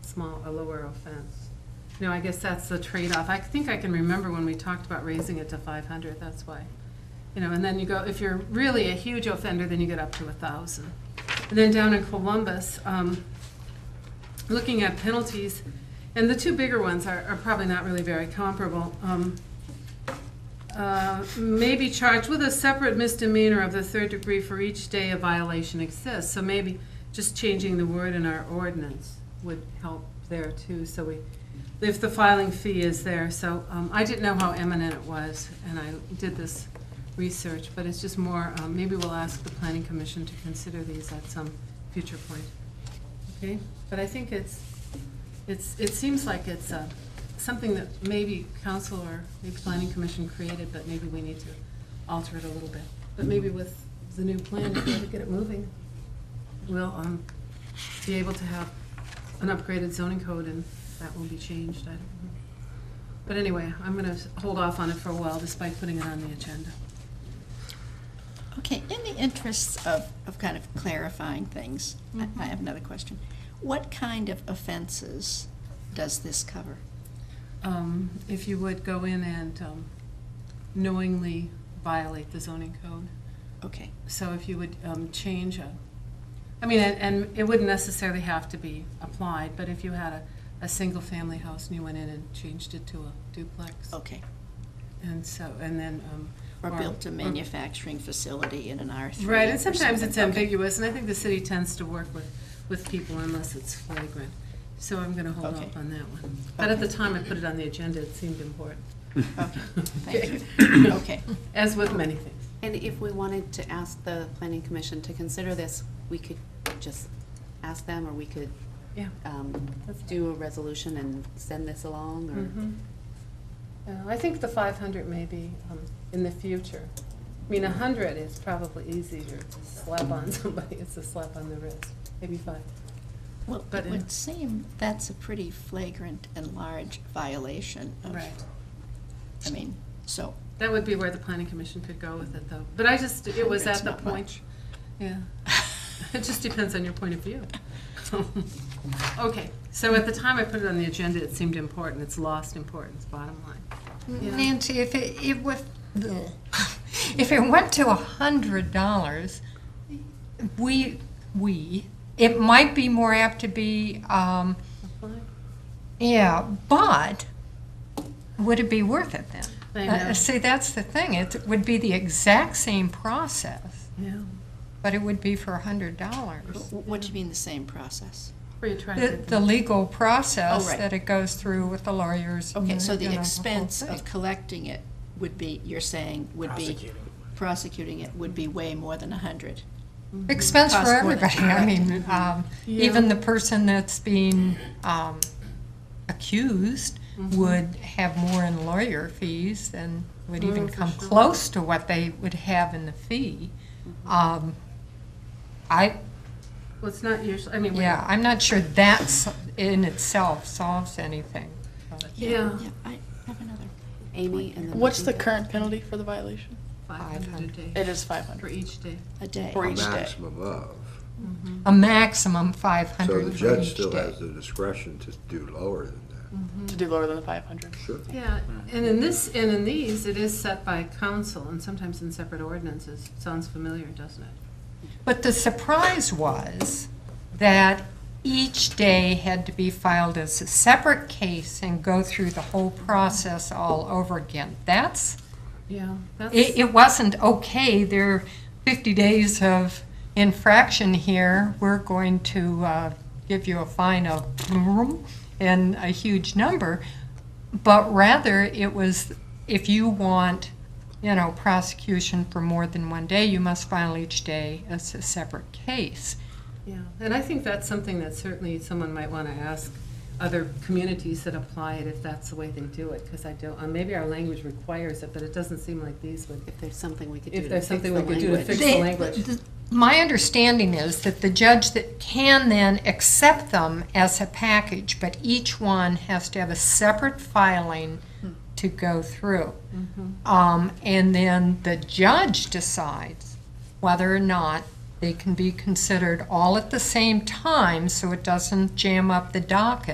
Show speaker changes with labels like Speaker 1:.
Speaker 1: small, a lower offense. No, I guess that's the trade-off. I think I can remember when we talked about raising it to five hundred, that's why. You know, and then you go, if you're really a huge offender, then you get up to a thousand. And then down in Columbus, um, looking at penalties, and the two bigger ones are, are probably not really very comparable. Um, uh, may be charged with a separate misdemeanor of the third degree for each day a violation exists. So maybe just changing the word in our ordinance would help there too, so we, if the filing fee is there. So um, I didn't know how eminent it was, and I did this research, but it's just more, um, maybe we'll ask the planning commission to consider these at some future point. Okay, but I think it's, it's, it seems like it's uh, something that maybe council or maybe planning commission created, but maybe we need to alter it a little bit. But maybe with the new plan, if we get it moving, we'll um, be able to have an upgraded zoning code, and that will be changed, I don't know. But anyway, I'm going to hold off on it for a while despite putting it on the agenda.
Speaker 2: Okay, in the interests of, of kind of clarifying things, I- I
Speaker 1: Mhm.
Speaker 2: have another question. What kind of offenses does this cover?
Speaker 1: Um, If you would go in and um, knowingly violate the zoning code.
Speaker 2: Okay,
Speaker 1: So if you would um, change a, I mean, and- and it wouldn't necessarily have to be applied, but if you had a, a single-family house and you went in and changed it to a duplex.
Speaker 2: okay.
Speaker 1: And so, and then. um,
Speaker 2: Oh. Or built a
Speaker 1: or-
Speaker 2: manufacturing facility in an R3.
Speaker 1: Right,
Speaker 2: or
Speaker 1: and sometimes
Speaker 2: something.
Speaker 1: it's
Speaker 2: Okay.
Speaker 1: ambiguous, and I think the city tends to work with, with people unless it's flagrant. So I'm going to hold
Speaker 2: Okay.
Speaker 1: off on that one. But at the
Speaker 2: Okay.
Speaker 1: time I put it on the agenda, it seemed important,
Speaker 2: Okay, thank you. Okay,
Speaker 1: as with many things.
Speaker 3: And if we wanted to ask the planning commission to consider this, we could just ask them, or we could
Speaker 1: Yeah.
Speaker 3: um,
Speaker 1: That's
Speaker 3: do a resolution and send this along, or,
Speaker 1: Mhm. Uh, I think the 500 may be um, in the future. I mean, 100 is probably easier to slap on somebody, it's a slap on the wrist, maybe five.
Speaker 2: well,
Speaker 1: But
Speaker 2: it
Speaker 1: in-
Speaker 2: would seem that's a pretty flagrant and large violation of, I mean, so,
Speaker 1: That would be where the planning commission could go with it, though. But I just, it was at
Speaker 2: Hundred's
Speaker 1: the
Speaker 2: not
Speaker 1: point.
Speaker 2: much.
Speaker 1: Yeah, it just depends on your point of view. Okay, so at the time I put it on the agenda, it seemed important, it's lost importance, bottom line. Yeah.
Speaker 4: Nancy, if it, it was, if it went to a hundred dollars, we, we, it might be more apt to be, um, yeah, but would it be worth it then?
Speaker 1: I
Speaker 4: Uh,
Speaker 1: know.
Speaker 4: See, that's the thing, it would be the exact same process,
Speaker 1: Yeah,
Speaker 4: but it would be for a hundred dollars.
Speaker 2: wh- what do you mean the same process?
Speaker 1: were you trying
Speaker 4: The,
Speaker 1: to?
Speaker 4: the legal process
Speaker 2: Oh, right.
Speaker 4: that it goes through with the lawyers.
Speaker 2: Okay, so
Speaker 4: and, you
Speaker 2: the
Speaker 4: know, whole
Speaker 2: expense
Speaker 4: thing.
Speaker 2: of collecting it would be, you're saying, would be, prosecuting it would be way more than a hundred?
Speaker 4: expense for
Speaker 2: Cost more than-
Speaker 4: everybody. I mean, um,
Speaker 1: Yeah.
Speaker 4: even the person that's being um, accused
Speaker 1: Mm-hmm.
Speaker 4: would have more in lawyer fees than would even
Speaker 1: Mm, for
Speaker 4: come
Speaker 1: sure.
Speaker 4: close to what they would have in the fee.
Speaker 1: Mm-hmm.
Speaker 4: Um, I,
Speaker 1: Well, it's not usually, I mean, we-
Speaker 4: yeah, I'm not sure that's in itself solves anything.
Speaker 1: Yeah.
Speaker 2: I have another.
Speaker 3: Amy and then.
Speaker 5: What's the
Speaker 3: Jacob.
Speaker 5: current penalty for the violation?
Speaker 1: 500 a day
Speaker 5: It is five
Speaker 1: for
Speaker 5: hundred.
Speaker 1: each day.
Speaker 2: A day.
Speaker 5: For each day.
Speaker 6: maximum of.
Speaker 4: A maximum
Speaker 6: So
Speaker 4: 500
Speaker 6: the
Speaker 4: for
Speaker 6: judge
Speaker 4: each
Speaker 6: still
Speaker 4: day.
Speaker 6: has the discretion to do lower than that.
Speaker 5: To do lower than the five hundred.
Speaker 6: Sure.
Speaker 1: Yeah, and in this, and in these, it is set by council and sometimes in separate ordinances. Sounds familiar, doesn't it?
Speaker 4: But the surprise was that each day had to be filed as a separate case and go through the whole process all over again. That's,
Speaker 1: Yeah.
Speaker 4: it,
Speaker 1: That's,
Speaker 4: it wasn't okay, there are 50 days of infraction here, we're going to uh, give you a fine of and a huge number, but rather it was, if you want, you know, prosecution for more than one day, you must file each day as a separate case.
Speaker 1: yeah, and I think that's something that certainly someone might want to ask other communities that apply it, if that's the way they do it, because I don't, uh, maybe our language requires it, but it doesn't seem like these would.
Speaker 3: If there's something we could do
Speaker 1: If
Speaker 3: to
Speaker 1: there's
Speaker 3: fix the
Speaker 1: something we could do to
Speaker 3: language.
Speaker 1: fix
Speaker 4: They-
Speaker 1: the language.
Speaker 4: th- My understanding is that the judge that can then accept them as a package, but each one has to have a separate filing to go through. Um, and then the judge decides whether or not they can be considered all at the same time, so it doesn't jam up the docket.